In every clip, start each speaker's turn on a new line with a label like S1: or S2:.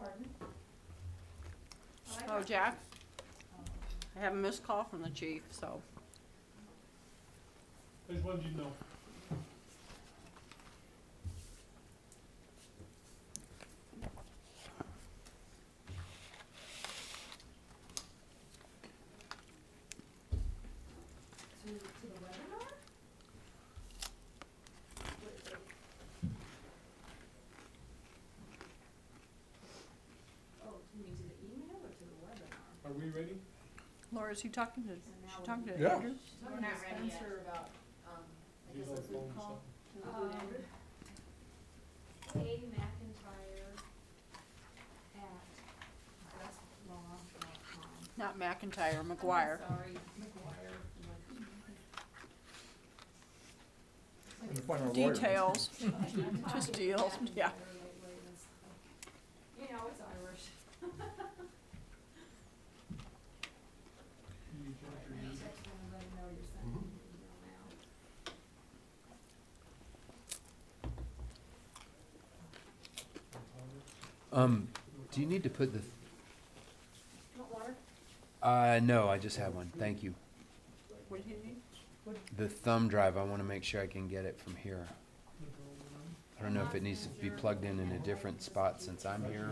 S1: go, Oh, Jack. I have a missed call from the chief, so.
S2: I just wanted you to know.
S3: to, to the webinar? Oh, you mean to the email or to the webinar?
S2: Are we ready?
S1: Laura, is he talking to,
S3: And now
S1: she talking to
S4: Yeah.
S1: Andrew?
S3: She's talking to Spencer about, um, I
S2: He's
S3: guess
S2: on
S3: that's
S2: phone
S3: what
S2: or
S3: we call.
S2: something.
S3: Um, A McIntyre at westlaw.com.
S1: Not McIntyre, McGuire.
S3: I'm sorry, McGuire,
S4: I'm gonna find our lawyer.
S1: Details,
S3: like-
S1: Just deals, yeah.
S3: You know, it's Irish.
S2: Can you check your
S3: You
S2: music?
S3: text them and let them know you're
S5: Mm-hmm.
S3: sending an email now.
S5: Um, do you need to put the,
S3: Want water?
S5: uh, no, I just have one, thank you.
S1: What do you need?
S5: The thumb drive, I wanna make sure I can get it from here.
S2: Look over there.
S5: I don't know if it needs to be plugged in in a different spot since I'm here.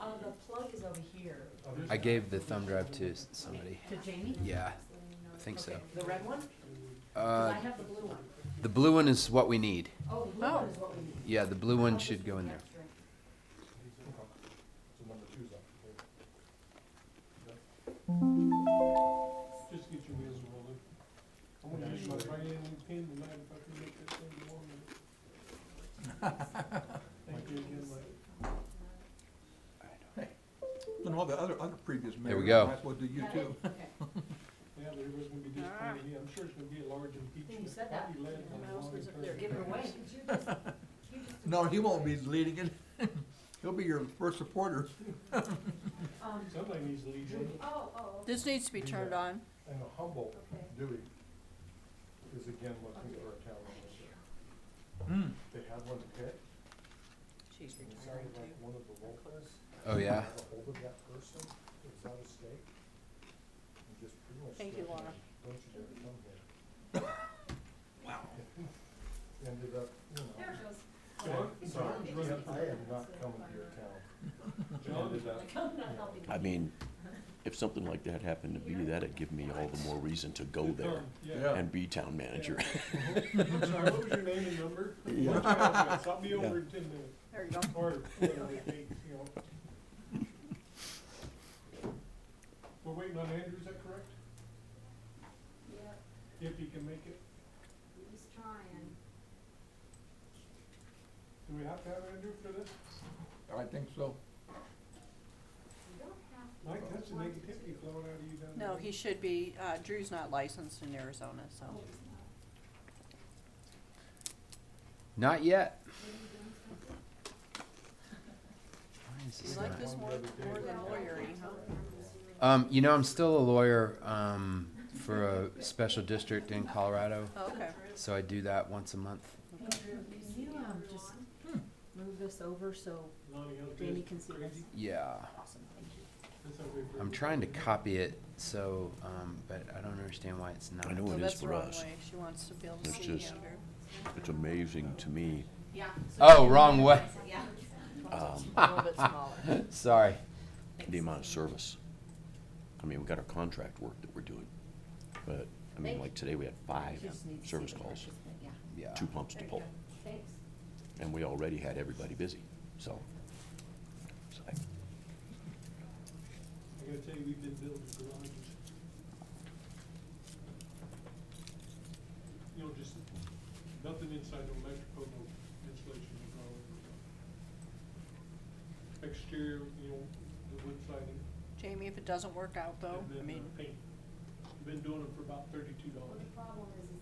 S6: Uh, the plug is over here.
S5: I gave the thumb drive to s- somebody.
S6: To Jamie?
S5: Yeah,
S3: So then you know
S5: I think so.
S6: Okay, The red one? 'Cause
S5: Uh,
S6: I have the blue one.
S5: the blue one is what we need.
S6: Oh, the blue
S1: Oh.
S6: one is what we need.
S5: Yeah, the blue one should go in there.
S4: So number two's up.
S2: Just get your wheels rolling. I'm gonna use my right-hand pin tonight if I can make this thing warm. Thank you again, Mike.
S4: And all the other, other previous mayors.
S5: we go.
S4: Might as well do you
S6: Got it?
S4: too.
S6: Okay.
S2: Yeah, but everybody's gonna be disappointed. Yeah, I'm sure it's gonna be a large impeachment.
S6: You said that.
S2: Probably led by
S6: Everyone
S1: else was up
S2: Hillary
S6: Give
S1: there
S2: Clinton.
S6: it away.
S3: Could you just- you just-
S4: No, he won't be leading it. He'll be your first supporter.
S3: Um,
S2: Somebody needs to lead you.
S3: oh, oh, okay.
S1: This needs to be turned on.
S7: And Humboldt
S3: Okay.
S7: Dewey is again looking for a town manager. They had one hit,
S6: She's
S7: and it sounded like one of the locals.
S5: Oh, yeah?
S7: Got ahold of that person, who was out of state. And just pretty much.
S1: Thank you,
S7: threatened
S1: Laura.
S7: him, Don't you dare come here. Wow. Ended up, you know,
S3: There it goes.
S2: John,
S7: so
S2: John's running.
S7: I am not coming to your town.
S2: John is
S7: Ended up,
S6: Like, I'm not helping.
S8: I mean, if something like that happened to me, that'd give me all the more reason to go there
S2: Thumb,
S4: Yeah.
S8: and be town manager.
S2: I'm sorry, what was your name and number?
S8: Yeah.
S2: I'll be over in ten minutes.
S1: There you go.
S2: Or whatever it takes, you know. We're waiting on Andrew, is that correct?
S3: Yeah,
S2: If he can make it,
S3: he's trying.
S2: do we have to have Andrew for this?
S4: I think so.
S3: You don't have to.
S2: Mike, that's the negativity flowing out of you down there.
S1: No, he should be, uh, Drew's not licensed in Arizona, so.
S3: Oh, it's not.
S5: Not yet.
S3: What are you doing, Spencer?
S5: Why is this
S1: You like
S5: not?
S1: this more, more than lawyery, huh?
S5: Um, you know, I'm still a lawyer, um, for a special district in Colorado,
S1: Oh, Okay.
S5: so I do that once a month.
S3: Andrew, you see
S6: Yeah, I'm
S3: Andrew
S6: just-
S3: on?
S6: Move this over so
S2: Lonnie, how's
S6: Jamie
S2: this?
S6: can see this.
S2: Crazy?
S5: Yeah.
S6: Awesome, thank you.
S2: That's how we-
S5: I'm trying to copy it, so, um, but I don't understand why it's not.
S8: I know
S1: So
S8: it
S1: that's
S8: is
S1: the
S8: for
S1: wrong
S8: us.
S1: way. She wants to be able to
S8: It's
S1: see
S8: just-
S1: Andrew.
S8: It's amazing to me.
S6: Yeah.
S5: Oh, wrong way.
S6: Yeah.
S8: Um,
S1: A little bit smaller.
S5: Sorry.
S8: the amount of service. I mean, we got our contract work that we're doing, but, I mean, like today, we had five
S6: You just need to see
S8: service
S6: the
S8: calls,
S6: brushes, but Yeah,
S5: Yeah.
S8: two pumps to
S6: There you
S8: pull,
S6: go. thanks.
S8: and we already had everybody busy, so. so I-
S2: I gotta tell you, we've been building garages. You know, just, nothing inside the electrical, no insulation, no problem. Exterior, you know, the wood siding,
S1: Jamie, if it doesn't work out though, I
S2: and then
S1: mean,
S2: uh, paint. Been doing them for about thirty-two
S3: Well,
S2: dollars.
S3: the problem is, is
S4: Hmm.